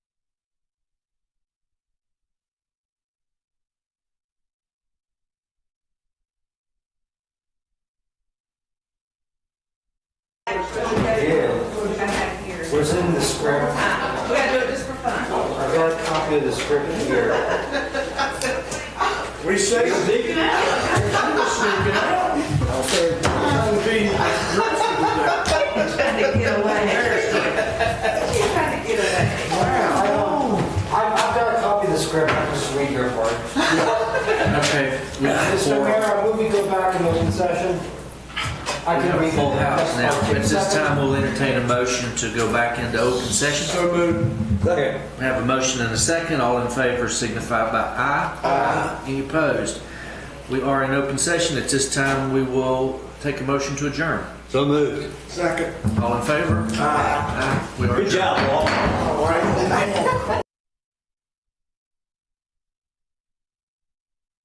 Yeah, I have here. We was in the script. gotta do it just for fun. I've got a copy of the script here. We say sneaking out. Sneaking out. I'm being dressed Trying to get away. She's trying to get away. I don't- I've, I've got a copy of the script, I'm just reading your part. Okay. Mr. Mayor, I move we go back in open session. I We can have a read. full house now. At this time, Second. we'll entertain a motion to go back into open session. So moved. Second. We have a motion and a second. All in favor signify by aye. Aye. Any opposed? We are in open session. At this time, we will take a motion to adjourn. So moved. Second. All in favor? Aye. We are Good adjourned. job, Walt. All right.